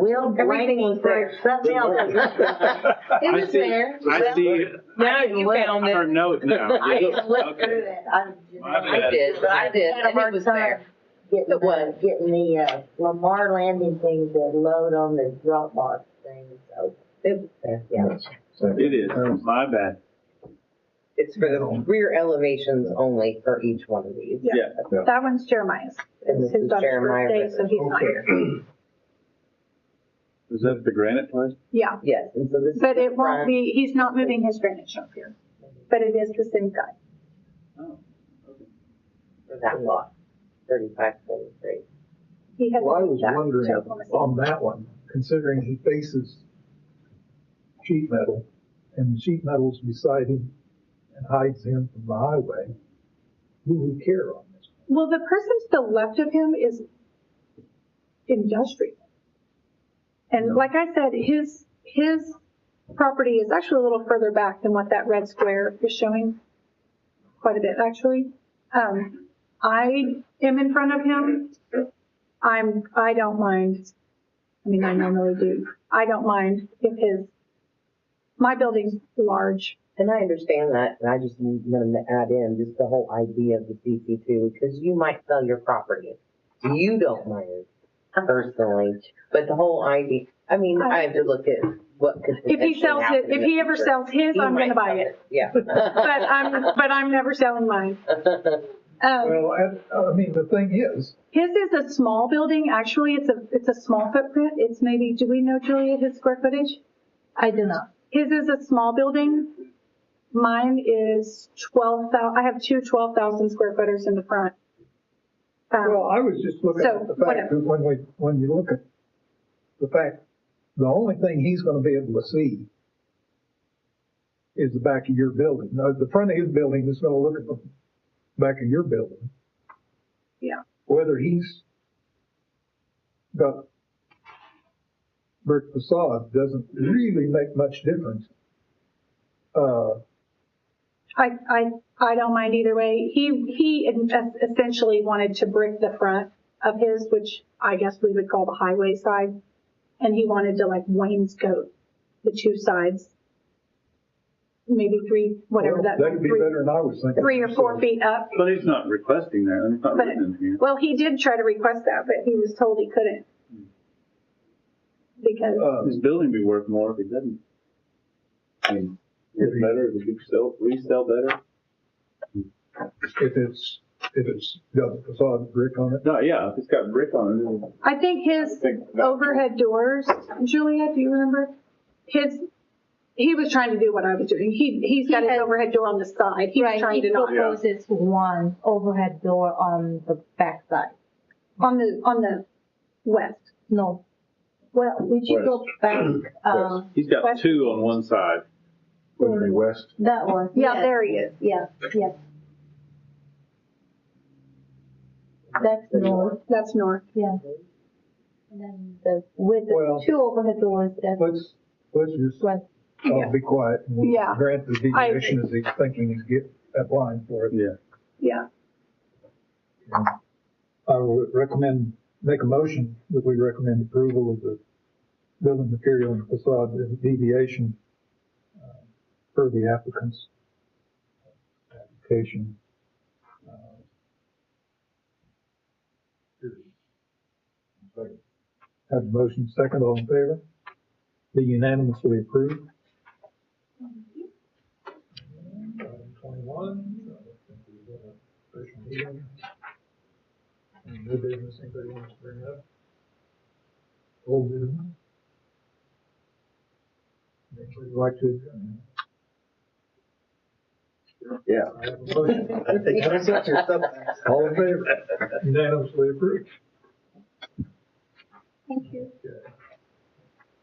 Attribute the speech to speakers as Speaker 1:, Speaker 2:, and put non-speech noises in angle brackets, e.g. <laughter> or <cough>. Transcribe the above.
Speaker 1: Will
Speaker 2: Everything
Speaker 1: blanking
Speaker 2: was
Speaker 1: for something
Speaker 3: <laughs>
Speaker 1: else.
Speaker 2: It
Speaker 4: I
Speaker 2: was
Speaker 4: see-
Speaker 2: there.
Speaker 4: I see
Speaker 2: Now you found
Speaker 4: her
Speaker 2: it.
Speaker 4: note
Speaker 2: <laughs>
Speaker 4: now.
Speaker 1: I didn't look
Speaker 4: Okay.
Speaker 1: through that. I just-
Speaker 4: My bad.
Speaker 2: I did, I did, and it was there.
Speaker 1: Getting,
Speaker 2: It was.
Speaker 1: the- getting the, uh, Lamar Landing thing to load on the Dropbox thing, so.
Speaker 2: It-
Speaker 1: Yeah.
Speaker 4: It is, my bad.
Speaker 3: It's for the rear elevations only for each one of these.
Speaker 5: Yeah.
Speaker 6: That one's Jeremiah's.
Speaker 3: And this
Speaker 6: It's his
Speaker 3: is
Speaker 6: daughter's
Speaker 3: Jeremiah
Speaker 6: birthday, so he's not here.
Speaker 4: Is that the granite place?
Speaker 6: Yeah,
Speaker 3: Yes, and so this is.
Speaker 6: but
Speaker 3: the
Speaker 6: it won't
Speaker 3: front.
Speaker 6: be, he's not moving his granite up here. But it is the same guy.
Speaker 3: For that lot, thirty-five forty-three.
Speaker 6: He has.
Speaker 5: Well, I was
Speaker 6: that,
Speaker 5: wondering
Speaker 6: so I'm gonna say-
Speaker 5: on that one, considering he faces sheet metal and sheet metal's beside him and hides him from the highway, who would care on this?
Speaker 6: Well, the person to the left of him is industrial. And like I said, his, his property is actually a little further back than what that red square is showing. Quite a bit, actually. Um, I am in front of him. I'm, I don't mind. I mean, I normally do. I don't mind if his, my building's large.
Speaker 3: And I understand that, and I just need them to add in just the whole idea of the CC two, because you might sell your property. You don't mind personally, but the whole idea, I mean, I have to look at what could.
Speaker 6: If he
Speaker 3: potentially
Speaker 6: sells it,
Speaker 3: happen in
Speaker 6: if
Speaker 3: the
Speaker 6: he ever
Speaker 3: future.
Speaker 6: sells his,
Speaker 3: He
Speaker 6: I'm
Speaker 3: might
Speaker 6: gonna buy
Speaker 3: sell
Speaker 6: it.
Speaker 3: Yeah. <laughs>
Speaker 6: <laughs> But I'm, but I'm never selling mine. Um,
Speaker 5: Well, I, I mean, the thing is,
Speaker 6: his is a small building, actually, it's a, it's a small footprint, it's maybe, do we know Julia, his square footage? I do not. His is a small building, mine is twelve thou, I have two twelve thousand square footers in the front.
Speaker 5: Well,
Speaker 6: Um,
Speaker 5: I was just looking
Speaker 6: So,
Speaker 5: at the fact
Speaker 6: whatever.
Speaker 5: that when we, when you look at the fact, the only thing he's gonna be able to see is the back of your building. Now, the front of his building is gonna look at the back of your building.
Speaker 6: Yeah.
Speaker 5: Whether he's got brick facade doesn't really make much difference. Uh,
Speaker 6: I, I, I don't mind either way, he, he es- essentially wanted to brick the front of his, which I guess we would call the highway side, and he wanted to like wainscot the two sides. Maybe three, whatever
Speaker 5: well,
Speaker 6: that.
Speaker 5: That'd be
Speaker 6: three-
Speaker 5: better than I was thinking.
Speaker 6: three or four
Speaker 5: So-
Speaker 6: feet up.
Speaker 4: But he's not requesting that, it's not
Speaker 6: But,
Speaker 4: written in here.
Speaker 6: well, he did try to request that, but he was told he couldn't. Because,
Speaker 5: Uh,
Speaker 4: His building be worth more if he didn't. I mean, it's better, if he could sell, resell better.
Speaker 5: if it's, if it's got the facade brick on it.
Speaker 4: No, yeah, if it's got brick on it, it'll-
Speaker 6: I think
Speaker 4: I
Speaker 6: his
Speaker 4: think that-
Speaker 6: overhead doors, Julia, do you remember? His, he was trying to do what I was doing. He, he's got his
Speaker 2: had-
Speaker 6: overhead door on the side. He was
Speaker 2: Right,
Speaker 6: trying
Speaker 2: he
Speaker 6: to not,
Speaker 2: proposes one overhead door on the backside.
Speaker 6: on the, on the west.
Speaker 2: No, well, would you go back, um,
Speaker 4: he's got two on one side.
Speaker 7: Wouldn't it be west?
Speaker 2: that one?
Speaker 6: Yeah, there he is.
Speaker 2: Yeah, yeah. That's north,
Speaker 6: That's north.
Speaker 2: yeah. And then the, with
Speaker 5: Well-
Speaker 2: the two overhead doors, that's
Speaker 5: Let's, let's just
Speaker 2: right.
Speaker 4: Oh.
Speaker 5: all be quiet and
Speaker 6: Yeah.
Speaker 5: we'll grant the
Speaker 6: I agree.
Speaker 5: deviation as he's thinking he's get, applying for it.
Speaker 4: Yeah.
Speaker 6: Yeah.
Speaker 5: I would recommend, make a motion that we recommend approval of the building material and facade deviation uh, per the applicant's application. uh, period. Second. Have a motion second, all in favor? Be unanimously approved. Item Twenty-one. I think we've got a special meeting. Any New business, anybody wants to bring up? Old business? Anybody like to? adjourn?
Speaker 4: Yeah.
Speaker 5: <laughs> I have a motion. All in favor? Unanimously approved.
Speaker 6: Thank you.
Speaker 5: Okay.